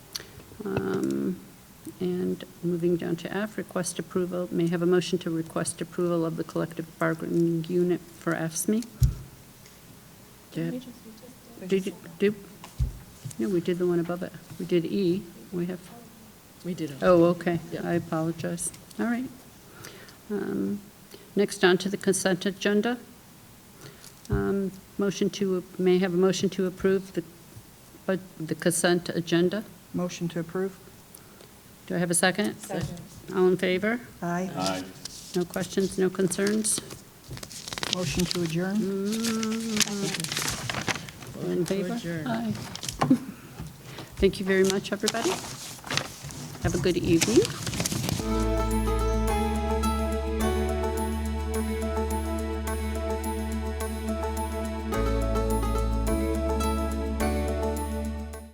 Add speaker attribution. Speaker 1: Um, And moving down to F, request approval, may I have a motion to request approval of the collective bargaining unit for AFSMI. Deb? Did you, do, no, we did the one above it. We did E. We have,
Speaker 2: We did.
Speaker 1: oh, okay.
Speaker 2: Yeah.
Speaker 1: I apologize. All right. Um, Next on to the consent agenda. Um, Motion to, may I have a motion to approve the, but the consent agenda.
Speaker 3: Motion to approve?
Speaker 1: Do I have a second?
Speaker 2: Second.
Speaker 1: All in favor?
Speaker 3: Aye.
Speaker 4: Aye.
Speaker 1: No questions, no concerns?
Speaker 3: Motion to adjourn?
Speaker 1: All in favor?
Speaker 2: adjourn.
Speaker 1: Aye. Thank you very much, everybody. Have a good evening.